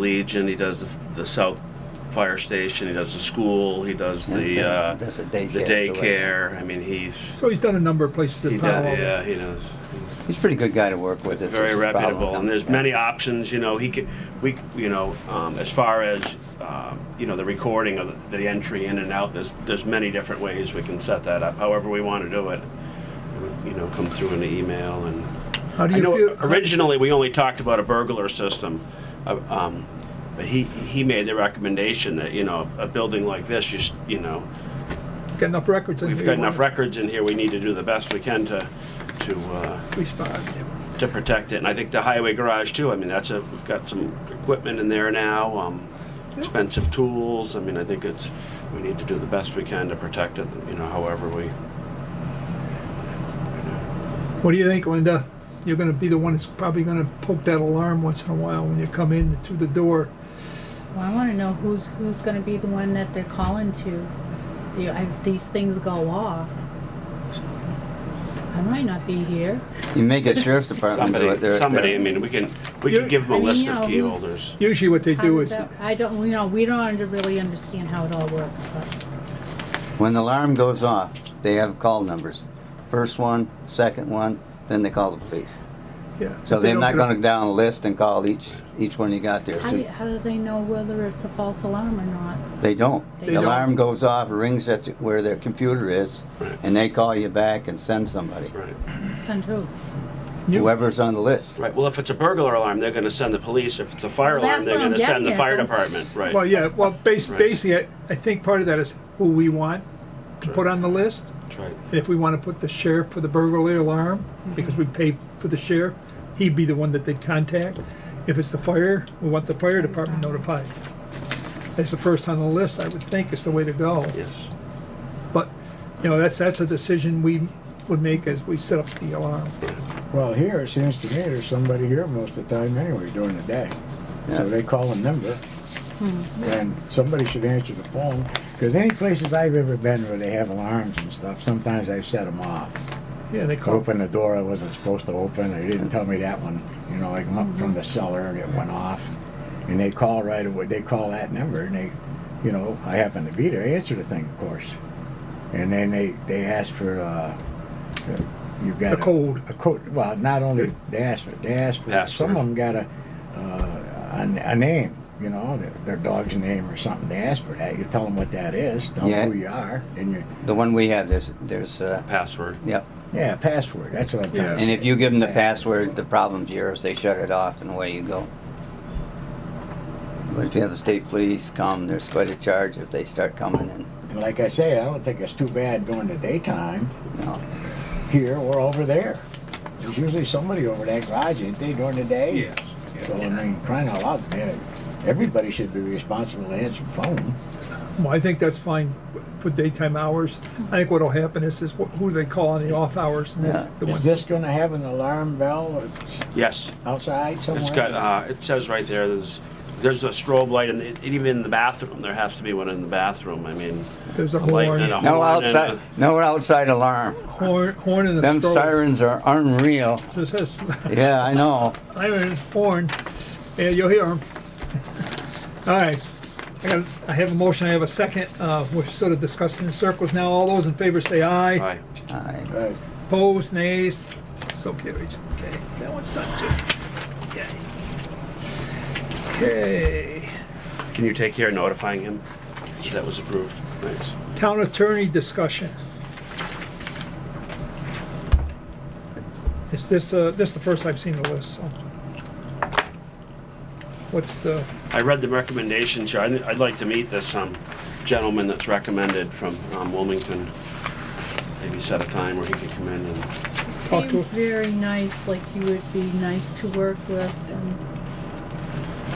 Legion, he does the, the South Fire Station, he does the school, he does the, uh, That's a the daycare. daycare. I mean, he's, So he's done a number of places he in does, Palo Alto. yeah, he knows. He's a pretty good guy to work with. It's Very just a problem reputable, and there's coming- many options, you know, he could, we, you know, um, as far as, um, you know, the recording of the the entry in and out, there's, there's many different ways we can set that up, however we want to do it. You know, come through in the email and. How do I know you feel? originally we only talked about a burglar system, uh, um, but he he made the recommendation that you know a building like this, you s- you know, Got enough records in here? we've got enough records in here. We need to do the best we can to to uh, Respond. to protect it. And I think the highway garage too. I mean, that's a we've got some equipment in there now, um, expensive tools. I mean, I think it's we need to do the best we can to protect it. You know, however we. What do you think, Linda? You're gonna be the one that's probably gonna poke that alarm once in a while when you come in through the door. Well, I want to know who's who's going to be the one that they're calling to. You know, if these things go off, I might not be here. You may get sheriff's department. to do it. Somebody, They're- somebody. I they're- mean, we can we You're- can give them a I mean, list you of know, key who's- holders. Usually what they How do does is, that- I don't. You know, we don't under- really understand how it all works. But When the alarm goes off, they have call numbers. First one, second one, then they call the police. yeah. So if they they're don't not get a- gonna go down a list and call each, each one you got there. how So do, how do they know whether it's a false alarm or not? They don't. They The don't. alarm goes off, rings at where their computer is, Right. and they call you back and send somebody. Right. Send who? You- Whoever's on the list. Right, well, if it's a burglar alarm, they're gonna send the police, if it's a fire Well, alarm, that's they're what I'm gonna send the getting at, fire though. department, right? Well, yeah, well, bas- Right. basically, I- I think part of that is who we want to Sure. put on the list. That's right. And if we want to put the sheriff for the burglary alarm, Mhm. because we pay for the sheriff, he'd be the one that they'd contact. If it's the fire, we want the fire department notified. That's the first on the list, I would think, is the way to go. Yes, But, you know, that's, that's a decision we would make as we set up the alarm. Well, here, it seems to me there's somebody here most of the time anyway during the day. Yeah. So they call a number. And somebody should answer the phone, because any places I've ever been where they have alarms and stuff, sometimes I've set them off. Yeah, they call, Opened the door I wasn't supposed to open, they didn't tell me that one, you know, I come up from the cellar and it went off. And they call right away, they call that number and they, you know, I happen to be there, I answer the thing, of course. And then they, they ask for, uh, you got The code. A code, well, not only, they asked for, they asked for, some Password. of them got a, uh, a, a name, you know, their, their dog's name or something, they asked for that, you tell them what that is, tell Yeah. them who you are, and you, The one we have, there's, there's, uh, password. yep. yeah, password, that's what I'm trying to Yeah. say. And if you give them the Password. password, the problem's yours. They shut it off and away you go. But if you have the state police come, there's quite a charge if they start coming in. And like I say, I don't think it's too bad during the daytime you know. here or over there. There's usually somebody over that garage, ain't they, during the day? Yes, So, I mean, crying out loud, man, everybody should be responsible to answer the phone. well, I think that's fine for daytime hours. I think what'll happen is, is wh- who do they call on the off hours, and that's Yeah. the Is ones. this gonna have an alarm bell Yes, outside somewhere? it's got, uh, it says right there, there's, there's a strobe light, and it- even in the bathroom, there has to be one in the bathroom, I mean. There's a light horn. and a No horn and outside, no outside alarm. Horn, horn and a Them strobe. sirens are unreal. So it says, Yeah, I know. Iron horn. Yeah, you'll hear him. All right. I got, I have a motion, I have a second. Uh, we're sort of discussing in circles now. All those in favor say a- aye. Right, I- Uh, Opposed, nays. So carried. Okay, that one's done too. Okay. Okay. can you take care of notifying him that was approved? Thanks. Town attorney discussion. Is this, uh, this is the first I've seen the list, so. What's the, I read the recommendation, Chair, I'd, I'd like to meet this, um, gentleman that's recommended from, um, Wilmington. Maybe set a time where he could come in and You Talk seem to- very nice. Like you would be nice to work with. And,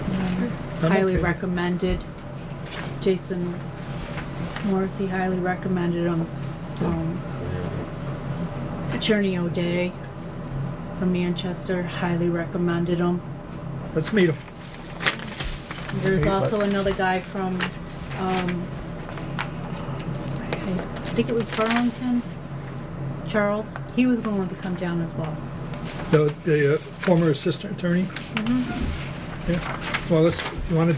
you know, I'm highly okay. recommended. Jason Morrissey highly recommended him. Um, Attorney O'Day from Manchester highly recommended him. let's meet him. There's Okay, also but- another guy from, um, I think it was Burlington, Charles. He was willing to come down as well. The, the uh, former assistant attorney? Yeah. Well, let's, if you wanna